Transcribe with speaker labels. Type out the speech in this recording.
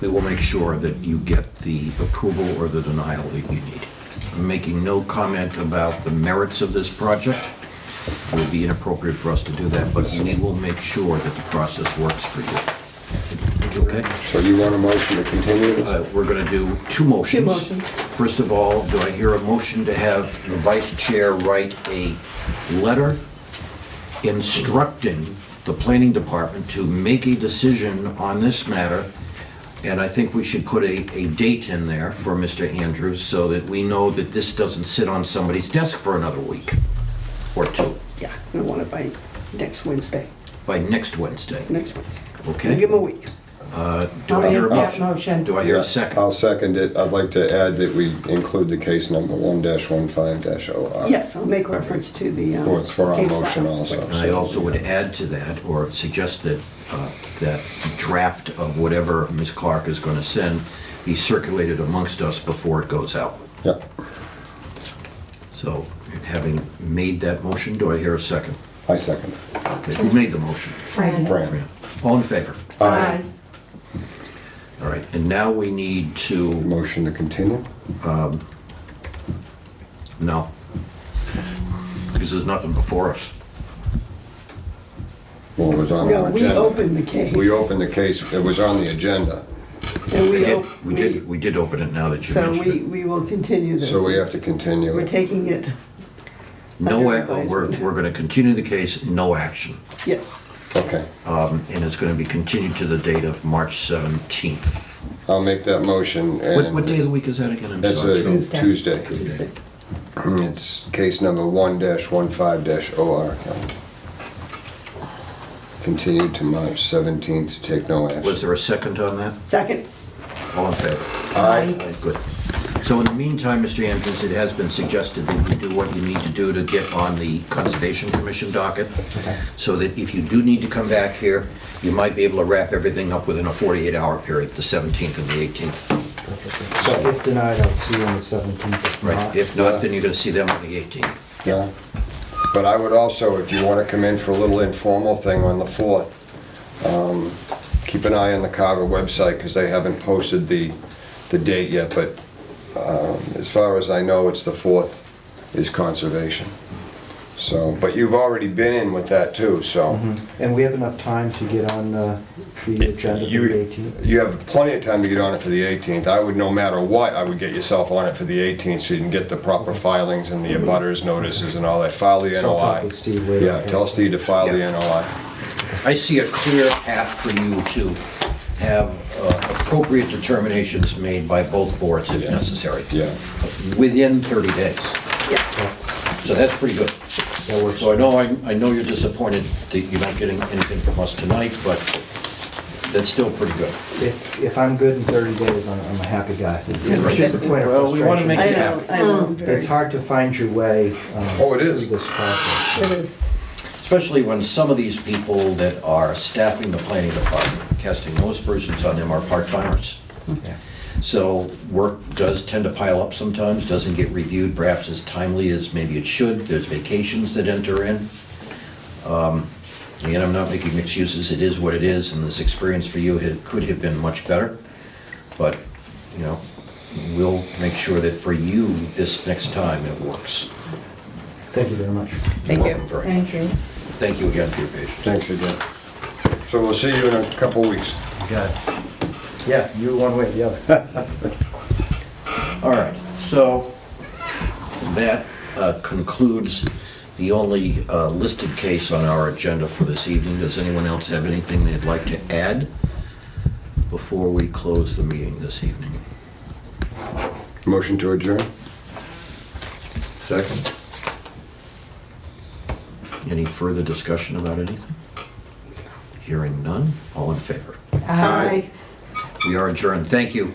Speaker 1: we will make sure that you get the approval or the denial that you need. I'm making no comment about the merits of this project. It would be inappropriate for us to do that, but we will make sure that the process works for you. Okay?
Speaker 2: So you want a motion to continue this?
Speaker 1: Uh, We're going to do two motions.
Speaker 3: Two motions.
Speaker 1: First of all, do I hear a motion to have the vice chair write a letter instructing the planning department to make a decision on this matter? And I think we should put a, a date in there for Mr. Andrews so that we know that this doesn't sit on somebody's desk for another week or two
Speaker 3: Yeah, I want it by next Wednesday,
Speaker 1: by next Wednesday.
Speaker 3: next Wednesday.
Speaker 1: Okay.
Speaker 3: Give them a week.
Speaker 1: Do I hear a
Speaker 4: I'll make that
Speaker 1: motion?
Speaker 4: motion.
Speaker 1: Do I hear
Speaker 2: Yeah,
Speaker 1: a second?
Speaker 2: I'll second it. I'd like to add that we include the case number one dash one five dash oh.
Speaker 3: Yes, I'll make reference to the. um,
Speaker 2: Well, it's for our
Speaker 3: case file.
Speaker 2: motion also.
Speaker 1: And I also would add to that, or suggest that, uh, that draft of whatever Ms. Clark is going to send be circulated amongst us before it goes out.
Speaker 2: Yep.
Speaker 1: So having made that motion, do I hear a second?
Speaker 2: I second it.
Speaker 1: Okay, who made the motion?
Speaker 4: Fran.
Speaker 2: Fran.
Speaker 1: All in favor?
Speaker 4: Aye.
Speaker 1: All right, and now we need to,
Speaker 2: Motion to continue?
Speaker 1: no, because there's nothing before us.
Speaker 2: Well, it was on
Speaker 3: No,
Speaker 2: our
Speaker 3: we
Speaker 2: agenda.
Speaker 3: opened the case.
Speaker 2: We opened the case. It was on the agenda.
Speaker 1: We
Speaker 3: And we,
Speaker 1: did,
Speaker 3: op-
Speaker 1: we did, we did open it now that you
Speaker 3: So we,
Speaker 1: mentioned it.
Speaker 3: we will continue this.
Speaker 2: So we have to continue
Speaker 3: We're
Speaker 2: it.
Speaker 3: taking it,
Speaker 1: No,
Speaker 3: under
Speaker 1: ac- we're,
Speaker 3: advisement.
Speaker 1: we're going to continue the case, no action.
Speaker 3: yes.
Speaker 2: Okay.
Speaker 1: Um, And it's going to be continued to the date of March 17th.
Speaker 2: I'll make that motion
Speaker 1: What,
Speaker 2: and.
Speaker 1: what day of the week is that again? I'm
Speaker 2: That's
Speaker 1: sorry.
Speaker 2: a
Speaker 4: Tuesday.
Speaker 2: Tuesday.
Speaker 3: Tuesday.
Speaker 2: It's case number one dash one five dash OR. Continued to March seventeenth to take no action.
Speaker 1: Was there a second on that?
Speaker 3: Second,
Speaker 1: All in favor?
Speaker 2: Aye.
Speaker 1: Good. So in the meantime, Mr. Andrews, it has been suggested that you do what you need to do to get on the Conservation Commission docket, so that if you do need to come back here, you might be able to wrap everything up within a 48-hour period, the 17th and the 18th.
Speaker 5: So if denied, I'll see you on the 17th. If
Speaker 1: Right?
Speaker 5: not,
Speaker 1: If not, then you're going to see them on the 18th.
Speaker 2: Yeah. But I would also, if you want to come in for a little informal thing on the 4th, um, keep an eye on the Carver website because they haven't posted the, the date yet, but um, as far as I know, it's the 4th is conservation. So, but you've already been in with that too, so.
Speaker 5: And we have enough time to get on uh, the agenda for the
Speaker 2: You,
Speaker 5: 18th.
Speaker 2: you have plenty of time to get on it for the 18th. I would, no matter what, I would get yourself on it for the 18th so you can get the proper filings and the abutters notices and all that. File the
Speaker 5: Mm-hmm. So I'll talk
Speaker 2: NOI.
Speaker 5: with Steve later.
Speaker 2: Yeah, tell Steve to file the
Speaker 1: Yeah.
Speaker 2: NOI.
Speaker 1: I see a clear path for you to have uh, appropriate determinations made by both boards if necessary.
Speaker 2: Yeah.
Speaker 1: Within 30 days.
Speaker 3: yeah,
Speaker 5: That's-
Speaker 1: So that's pretty good.
Speaker 5: That works.
Speaker 1: So I know, I'm- I know you're disappointed that you're not getting anything from us tonight, but that's still pretty good.
Speaker 5: If, if I'm good in 30 days, I'm, I'm a happy guy. It's just a point of
Speaker 1: Well, we wanna make
Speaker 3: I
Speaker 5: frustration.
Speaker 3: know, I know. I'm very-
Speaker 5: It's hard to find your way. um,
Speaker 2: Oh, it is.
Speaker 5: Through this process.
Speaker 4: It is.
Speaker 1: Especially when some of these people that are staffing the planning department, casting those persons on them are part-timers. So work does tend to pile up sometimes, doesn't get reviewed perhaps as timely as maybe it should. There's vacations that enter in. Um, Again, I'm not making excuses, it is what it is, and this experience for you ha- could have been much better. But, you know, we'll make sure that for you, this next time, it works.
Speaker 5: Thank you very much.
Speaker 3: Thank
Speaker 1: Welcome
Speaker 3: you.
Speaker 1: very much.
Speaker 4: Thank you.
Speaker 1: Thank you again for your patience.
Speaker 2: Thanks again. So we'll see you in a couple weeks.
Speaker 5: Got it. Yeah, you one way or the other.
Speaker 1: All right, so that uh, concludes the only uh, listed case on our agenda for this evening. Does anyone else have anything they'd like to add before we close the meeting this evening?
Speaker 2: Motion to adjourn? Second.
Speaker 1: Any further discussion about anything? Hearing none, all in favor?
Speaker 4: Aye.
Speaker 1: We are adjourned. Thank you.